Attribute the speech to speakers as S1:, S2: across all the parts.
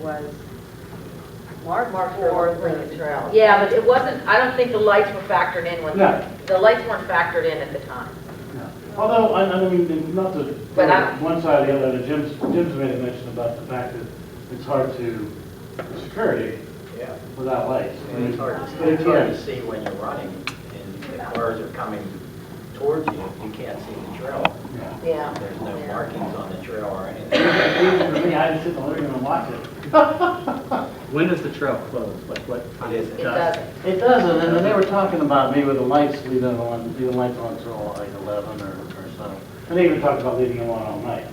S1: was
S2: Mark, Mark
S1: for
S2: for
S1: the
S2: Lincoln Trail.
S1: Yeah, but it wasn't, I don't think the lights were factored in when,
S3: No.
S1: the lights weren't factored in at the time.
S3: No. Although, I, I mean, not to,
S1: But I-
S3: one side or the other, Jim's, Jim's made a mention about the fact that it's hard to, security
S4: Yeah,
S3: without lights. I
S4: and
S3: mean,
S4: it's hard to,
S3: But
S4: it's hard to
S3: again,
S4: see when you're running and the cars are coming towards you. You can't see the trail.
S3: yeah.
S1: Yeah.
S4: There's no markings on the trail or anything.
S3: Even for me, I just sit in the living room and watch it.
S5: When does the trail close? Like what time?
S4: It isn't.
S1: It doesn't.
S3: It doesn't, and then they were talking about maybe the lights leaving on, leaving lights on until like eleven or, or so. And they even talked about leaving them on all night.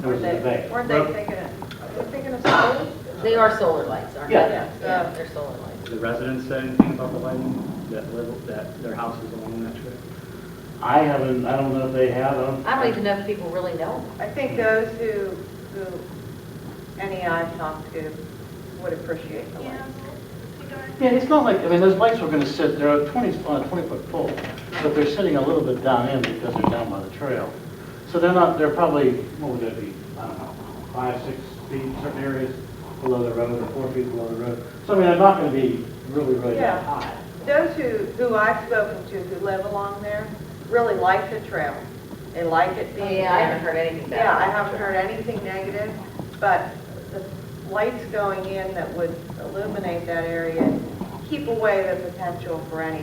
S3: There was a debate.
S6: Weren't they thinking of, were they thinking of solar?
S1: They are solar lights, aren't they?
S3: Yeah.
S1: Yeah, they're solar lights.
S5: Do the residents say anything about the lighting, that live, that their houses along that trail?
S3: I haven't, I don't know if they have them.
S1: I don't even know if people really know.
S6: I think those who, who any I've talked to would appreciate the light.
S3: Yeah, it's not like, I mean, those lights were gonna sit, they're a twenty, on a twenty-foot pole, but they're sitting a little bit down in because they're down by the trail. So they're not, they're probably, what would that be, I don't know, five, six feet, certain areas below the road, or four feet below the road. So I mean, they're not gonna be really, really that
S6: Yeah.
S3: high.
S6: Those who, who I've spoken to who live along there really like the trail. They like it being
S1: Yeah, I haven't
S6: there.
S1: heard anything about it.
S6: Yeah, I haven't heard anything negative, but the lights going in that would illuminate that area, keep away the potential for any.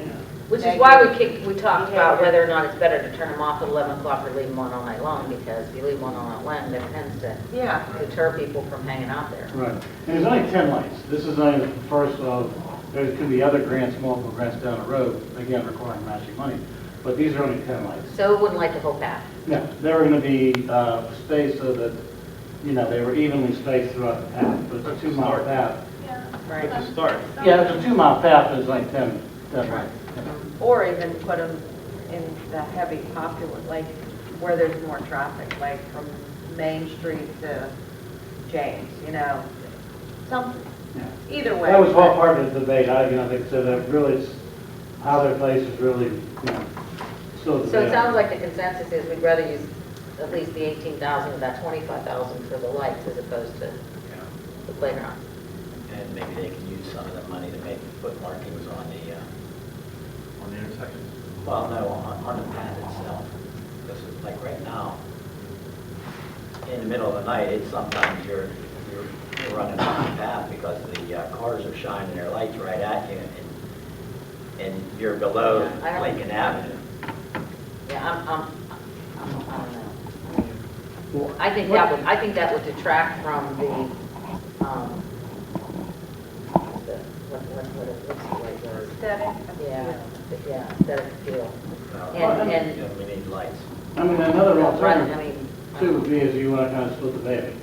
S1: Which is why we
S6: negative-
S1: kicked, we talked about whether or not it's better to turn them off at 11 o'clock or leave them on all night long, because if you leave one on all night long, that tends to
S6: Yeah.
S1: deter people from hanging out there.
S3: Right. And there's only 10 lights. This is only the first of, there could be other grants, multiple grants down the road, again, requiring matching money. But these are only 10 lights.
S1: So it wouldn't light the whole path.
S3: No, they were going to be uh, spaced so that, you know, they were evenly spaced throughout the path, but it's a two-mile path.
S6: Right.
S5: Start.
S3: Yeah, it's a two-mile path, there's like 10, 10 lights.
S6: Or even put them in the heavy popular, like where there's more traffic, like from Main Street to James, you know, something,
S3: Yeah.
S6: either way.
S3: That was all part of the debate. I, you know, they said that really, it's- how they're placed is really, you know, still a
S1: So it
S3: debate.
S1: sounds like the consensus is we'd rather use at least the 18,000 of that 25,000 for the lights as opposed to the playground.
S4: And maybe they can use some of the money to make foot markings on the, uh,
S7: on the intersection.
S4: well, no, on, on the path itself. Because it's like right now, in the middle of the night, it's sometimes you're, you're you're running off the path because the uh, cars are shining their lights right at you and, and you're below
S1: Yeah, I don't-
S4: Lincoln Avenue.
S1: Yeah, I'm, I'm, I'm- I don't know. I think that would, I think that would detract from the, um, the, what, what, what, what's the right word?
S6: Aesthetic.
S1: Yeah, the- yeah, that appeal.
S4: Uh,
S1: And,
S4: you
S1: and,
S4: know, We need lights.
S3: I mean, another
S1: right,
S3: alternative.
S1: I mean, um,
S3: Two would be is you want to kind of split the baby.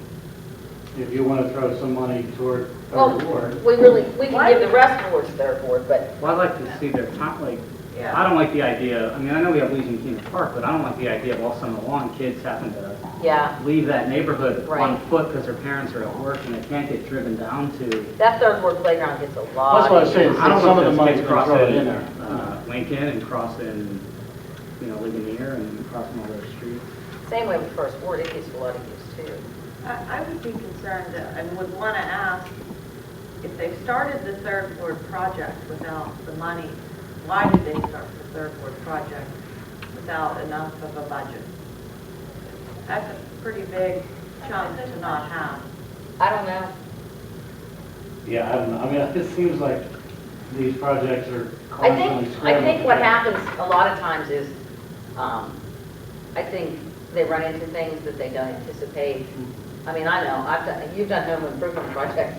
S3: If you want to throw some money toward a
S1: well,
S3: reward,
S1: we really, we can give the rest towards their board, but
S5: Well, I'd like to see their top, like,
S6: Yeah.
S5: I don't like the idea, I mean, I know we have Legion Keener Park, but I don't like the idea of all summer long, kids having to
S1: yeah,
S5: leave that neighborhood on
S1: Right.
S5: foot because their parents are at work and they can't get driven down to.
S1: that third ward playground gets a lot.
S3: That's what I was
S1: of-
S3: saying.
S5: I don't
S3: Some of
S5: want
S3: the
S5: those
S3: money's
S5: kids
S3: been thrown
S5: crossing,
S3: in there.
S5: uh, Lincoln and crossing, you know, Ligonier and crossing all those streets.
S1: Same way with first ward, it gets a lot of use too.
S6: I, I would be concerned uh, and would want to ask, if they started the third ward project without the money, why did they start the third ward project without enough of a budget? That's a pretty big chunk to not have.
S1: I don't know.
S3: yeah, I don't know. I mean, it seems like these projects are
S1: I
S3: constantly
S1: think, I
S3: scrambling.
S1: think what happens a lot of times is, um, I think they run into things that they don't anticipate. I mean, I know, I've done, you've done home improvement projects,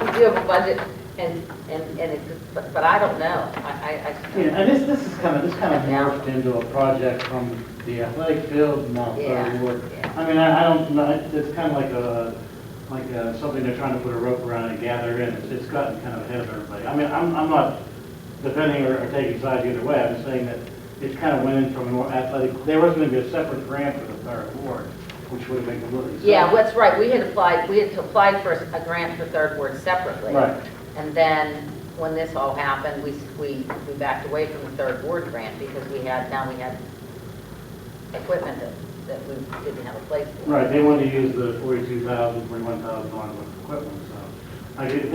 S1: you do have a budget, and, and, and it, but, but I don't know, I, I-
S3: Yeah,
S1: I,
S3: and this, this is kind of, this kind of morphed into a project from the athletic field, now
S1: Yeah,
S3: third ward.
S1: yeah.
S3: I mean, I, I don't, know. it's kind of like a, like uh something they're trying to put a rope around and gather in. It's it's gotten kind of ahead of everybody. I mean, I'm, I'm not defending or or taking sides either way. I'm just saying that it kind of went in from a more athletic, there was going to be a separate grant for the third ward, which would have been completely separate.
S1: yeah, that's right, we had applied, we had applied for a grant for Third Ward separately.
S3: Right.
S1: And then, when this all happened, we, we, we backed away from the Third Ward grant, because we had, now we had equipment that, that we didn't have a place for.
S3: Right, they wanted to use the forty-two thousand, forty-one thousand on equipment, so. I could-